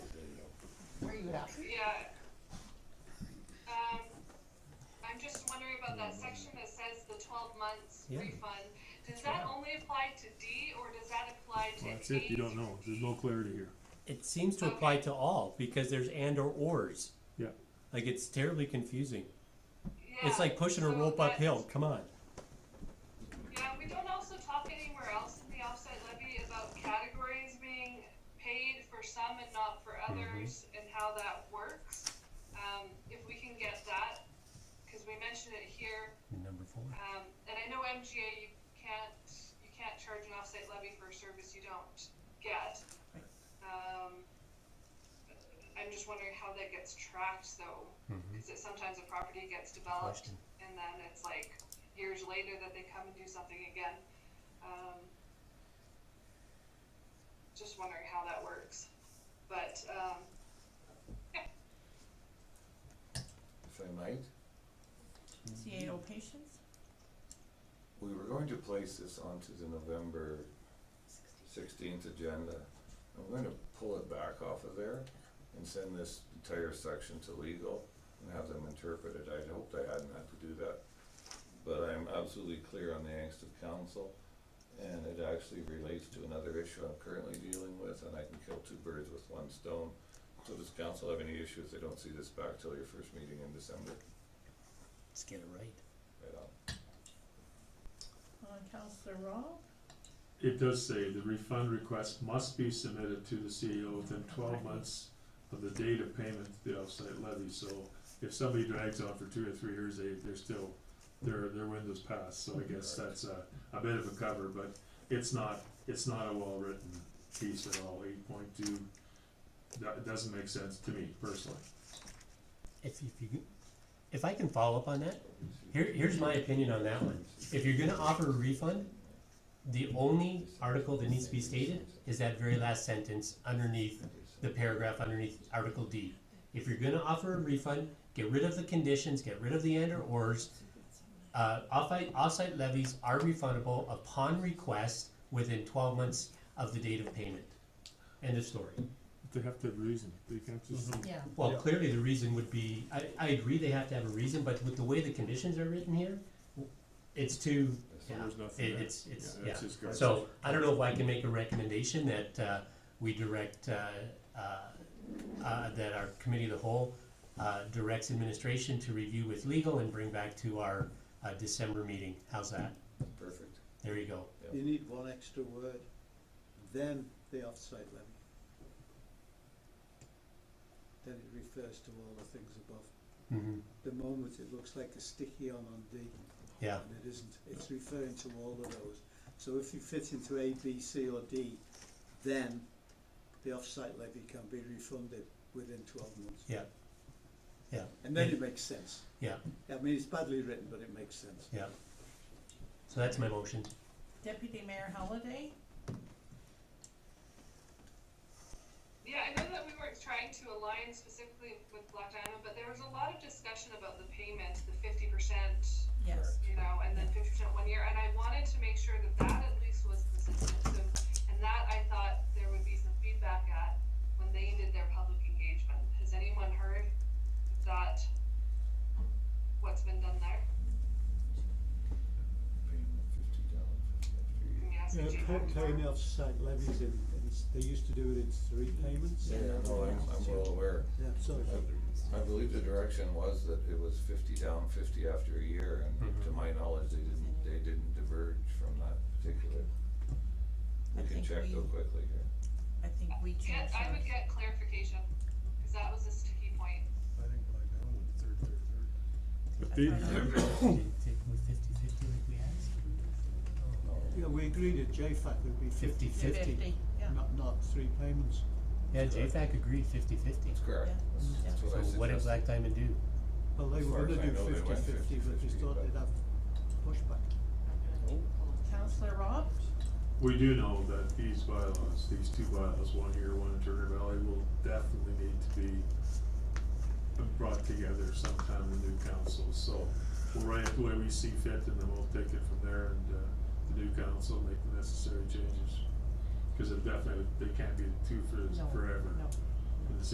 Yeah. Yeah. Um, I'm just wondering about that section that says the twelve months Yeah. refund. Does that only apply to D or does that apply to Well, that's H? it, you don't know, there's no clarity here. It seems to apply to all because there's and or ors. Yeah. Like it's terribly confusing. Yeah, It's like pushing a so rope that- uphill. Come on. Yeah, we don't also talk anywhere else in the offset levy about categories being paid for some and not for others Mm-hmm. and how that works. Um, if we can get that, cause we mentioned it here, Number four. Um, and I know MGA, you can't, you can't charge an offsite levy for a service you don't get. Um, I'm just wondering how that gets tracked though, cause it, sometimes a property gets developed Question. and then it's like years later that they come and do something again. Um, just wondering how that works, but, um, If I might, CAO patients? we were going to place this onto the November sixteenth agenda. I'm going to pull it back off of there and send this entire section to legal and have them interpret it. I'd hoped I hadn't had to do that. But I'm absolutely clear on the angst of council and it actually relates to another issue I'm currently dealing with and I can kill two birds with one stone. So does council have any issues? They don't see this back till your first meeting in December. Let's get it right. Right on. Uh, Counselor Rob? It does say the refund request must be submitted to the CEO within twelve months of the date of payment to the offsite levy, so if somebody drags on for two or three years, they, they're still, their, their window's passed, so I guess that's a, a bit of a cover, but it's not, it's not a well-written piece at all, eight point two, that, doesn't make sense to me personally. If, if you can- if I can follow up on that, here, here's my opinion on that one. If you're gonna offer a refund, the only article that needs to be stated is that very last sentence underneath the paragraph underneath Article D. If you're gonna offer a refund, get rid of the conditions, get rid of the and or ors. Uh, offsite, offsite levies are refundable upon request within twelve months of the date of payment. End of story. They have to have reason, they can't just. Yeah. Well, clearly the reason would be, I, I agree they have to have a reason, but with the way the conditions are written here, it's too, yeah, There's nothing it, there. it's, it's, Yeah, yeah. that's just garbage. So, I don't know if I can make a recommendation that, uh, we direct, uh, uh, uh, that our committee of the whole, uh, directs administration to review with legal and bring back to our, uh, December meeting. How's that? Perfect. There you go. You need one extra word, then the offsite levy. Then it refers to all the things above. hmm The moment it looks like a sticky on on D, yeah, and it isn't, it's referring to all of those. So if you fit into A, B, C or D, then the offsite levy can be refunded within twelve months. yeah, yeah. And then it makes sense. Yeah, I mean, it's badly written, but it makes sense. yeah. So that's my motion. Deputy Mayor Holliday? Yeah, I know that we weren't trying to align specifically with Black Diamond, but there was a lot of discussion about the payment, the fifty percent, Yes. you know, and then fifty percent one year, and I wanted to make sure that that at least was consistent, so, and that I thought there would be some feedback at when they did their public engagement. Has anyone heard that, what's been done there? Can you ask Yeah, Jean pay- that? paying the offsite levies in, in s- they used to do it in three payments. Yeah, no, I'm, I'm well aware. Yeah, so, I believe the direction was that it was fifty down, fifty after a year, Mm-hmm. and to my knowledge, they didn't, they didn't diverge from that particular. I We can think check we- though quickly here. I think we Get, changed I would ours. get clarification, cause that was a sticky point. I think by now, with third, third, third. But I the- thought I- With fifty-fifty like we asked? yeah, we agreed at JFAC would be fifty fifty, yeah, not, not three payments. Yeah, JFAC agreed fifty-fifty. That's correct. Yeah. That's- That's So what I what did Black suggested. Diamond do? Well, they As were far as gonna I do know, they fifty went fifty, but just 50-50, thought but- they'd have pushback. Counselor Rob? We do know that these bylaws, these two bylaws, one here, one in Turner Valley, will definitely need to be brought together sometime in the new council, so we'll write it the way we see fit and then we'll take it from there and, uh, the new council make the necessary changes. Cause it definitely, they can't be two for, No, forever. no.